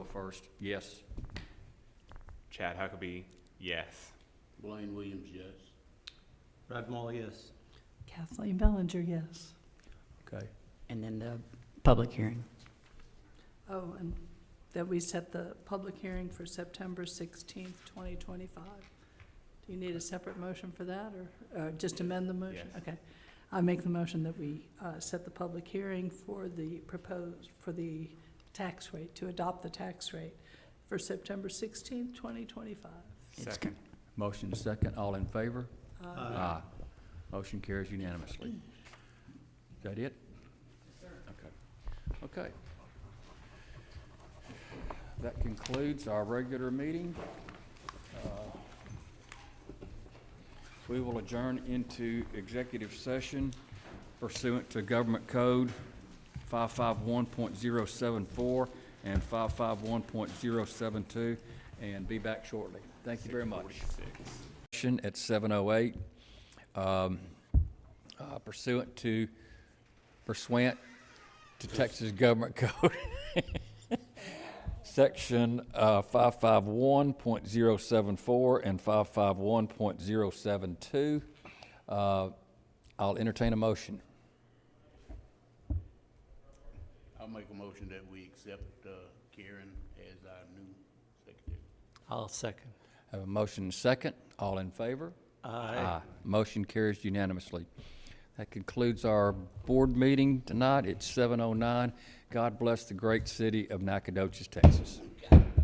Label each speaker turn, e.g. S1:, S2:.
S1: first, yes.
S2: Chad Huckabee, yes.
S3: Blaine Williams, yes.
S4: Brad Moll, yes.
S5: Kathleen Bellinger, yes.
S1: Okay.
S6: And then the public hearing.
S5: Oh, and that we set the public hearing for September sixteenth, twenty twenty-five. Do you need a separate motion for that, or, uh just amend the motion?
S2: Yes.
S5: Okay. I make the motion that we, uh, set the public hearing for the proposed, for the tax rate, to adopt the tax rate for September sixteenth, twenty twenty-five.
S6: It's
S2: Second.
S1: Motion second, all in favor?
S4: Aye.
S1: Motion carries unanimously. Is that it? Okay. Okay. That concludes our regular meeting. Uh, We will adjourn into executive session pursuant to Government Code 551.074 and 551.072, and be back shortly. Thank you very much
S2: Forty-six.
S1: session at 7:08 um, uh, pursuant to, pursuant to Texas Government Code, Section uh, 551.074 and 551.072. Uh, I'll entertain a motion.
S3: I'll make a motion that we accept uh, Karen as our new secretary.
S4: I'll second.
S1: Have a motion and second. All in favor?
S4: Aye.
S1: Motion carries unanimously. That concludes our board oh meeting tonight. It's 7:09. God bless the great city of Nacogdoches, Texas.